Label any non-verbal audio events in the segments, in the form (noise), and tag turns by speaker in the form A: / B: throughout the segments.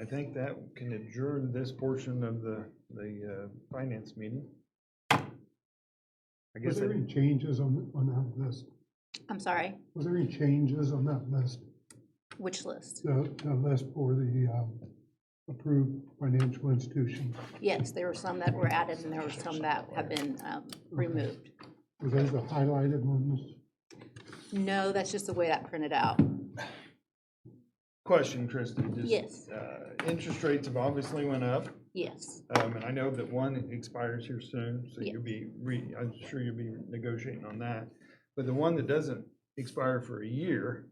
A: I think that can adjourn this portion of the, the uh, finance meeting. I
B: Was
A: guess,
B: there
A: I-
B: any changes on, on that list?
C: I'm sorry,
B: Was there any changes on that list,
C: which list?
B: the, the list for the um, approved financial institution?
C: Yes, there were some that were added and there were some that have been um, removed.
B: Were those the highlighted ones?
C: No, that's just the way that printed out.
A: question, Kristen, just.
C: Yes,
A: uh, Interest rates have obviously went up,
C: yes,
A: um, and I know that one expires here soon, so you'll be re, I'm sure you'll be negotiating on that. But the one that doesn't expire for a year,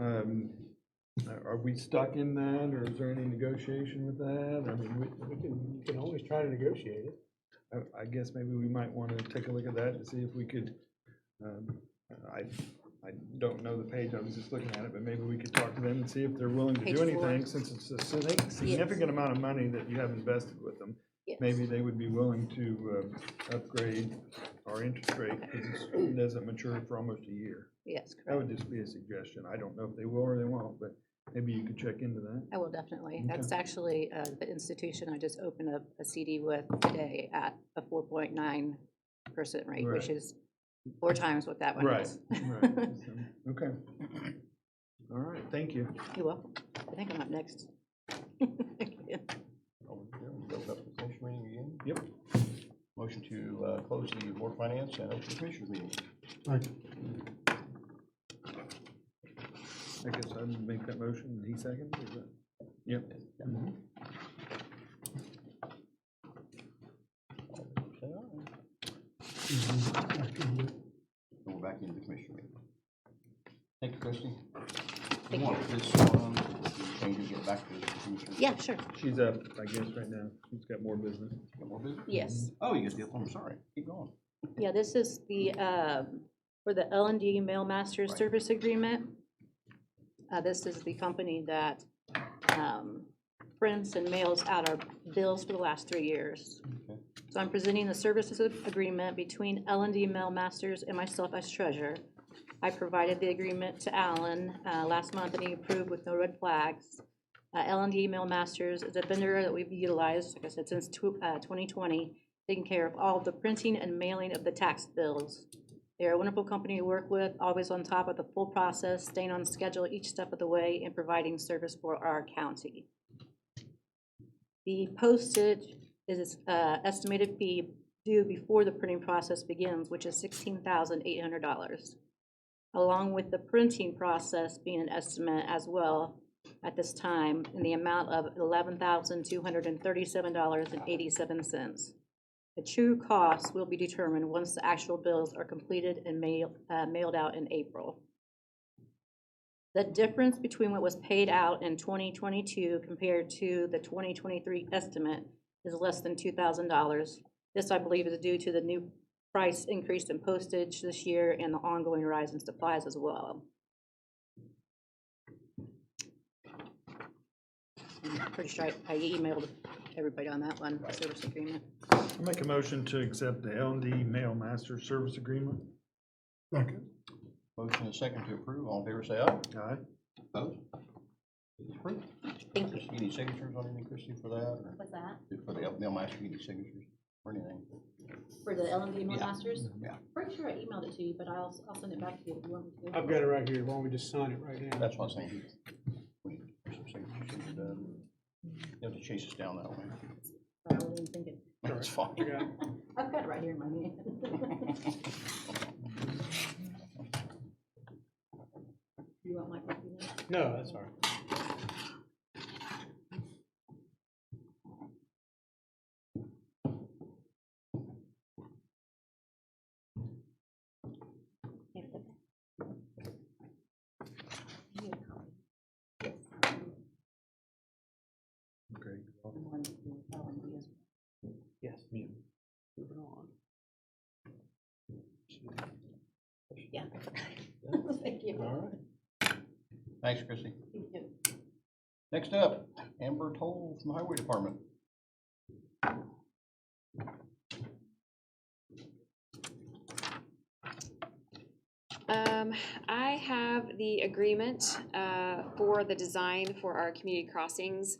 A: um, are are we stuck in that, or is there any negotiation with that? I mean, we-
D: We can, you can always try to negotiate it.
A: I- I guess maybe we might want to take a look at that to see if we could, um, I, I don't know the page, I was just looking at it, but maybe we could talk to them and see if they're willing to
C: Page
A: do
C: four.
A: anything, since it's a signi- significant amount of money that you have invested with them.
C: yes.
A: Maybe they would be willing to um, upgrade our interest rate, because it doesn't mature for almost a year.
C: Yes,
A: That
C: correct.
A: would just be a suggestion, I don't know if they will or they won't, but maybe you could check into that.
C: I will definitely.
A: Okay.
C: That's actually uh, the institution I just opened up a CD with today at a 4.9% rate, which
A: Right.
C: is four times what that one
A: Right,
C: is.
A: right, so, okay. All right, thank you.
C: You're welcome. I think I'm up next. (laughs)
E: Build up the commission meeting again.
A: Yep.
E: Motion to uh, close the board of finance and open the commissioners meeting.
B: Like,
A: I guess I'd make that motion, and he second, is that? Yep.
E: Go back into the commission meeting. Thank you, Christie.
C: Thank
E: want this, um, change and get back to the commission.
C: Yeah, sure.
A: She's up, I guess, right now, she's got more business.
E: Got more business?
C: Yes.
E: Oh, you got the, I'm sorry, keep going.
C: Yeah, this is the, um, for the L and D Mail Master Service Agreement. Uh, This is the company that um, prints and mails out our bills for the last three years.
E: Okay.
C: So I'm presenting the services ag- agreement between L and D Mail Masters and myself as treasurer. I provided the agreement to Alan uh, last month, and he approved with no red flags. L and D Mail Masters is a vendor that we've utilized, like I said, since tw- uh, 2020, taking care of all of the printing and mailing of the tax bills. They're a wonderful company to work with, always on top of the full process, staying on schedule each step of the way, and providing service for our county. The postage is uh, estimated fee due before the printing process begins, which is $16,800, along with the printing process being an estimate as well at this time in the amount of $11,237.87. The true cost will be determined once the actual bills are completed and mail- uh, mailed out in April. The difference between what was paid out in 2022 compared to the 2023 estimate is less than $2,000. This, I believe, is due to the new price increase in postage this year and the ongoing rise in supplies as well. I'm Pretty sure I I emailed everybody on that one, service agreement.
A: I make a motion to accept the L and D Mail Master Service Agreement.
B: Second,
E: Motion and second to approve, all in favor say aye.
A: Aye.
E: Opposed? It's approved.
C: Thank you.
E: Christie, any signatures on anything, Christie, for that, or
C: What's that?
E: for the, they'll ask you any signatures or anything?
C: For the L and D
E: Yeah.
C: Masters?
E: Yeah.
C: Pretty sure I emailed it to you, but I'll, I'll send it back to you if you want me to.
D: I've got it right here, why don't we just sign it right now?
E: That's what I was thinking. We need some signatures to be done. You have to chase us down that way.
C: Sorry, I wasn't thinking.
E: That's fine.
D: I got it.
C: I've got it right here in my
D: (laughs)
C: hand. You want my copy now?
D: No, that's all right.
A: Okay.
D: Yes. Moving on.
C: Yeah. Thank you.
E: All right. Thanks, Christie. Next up, Amber Toll from the Highway Department.
F: Um, I have the agreement, uh, for the design for our community crossings.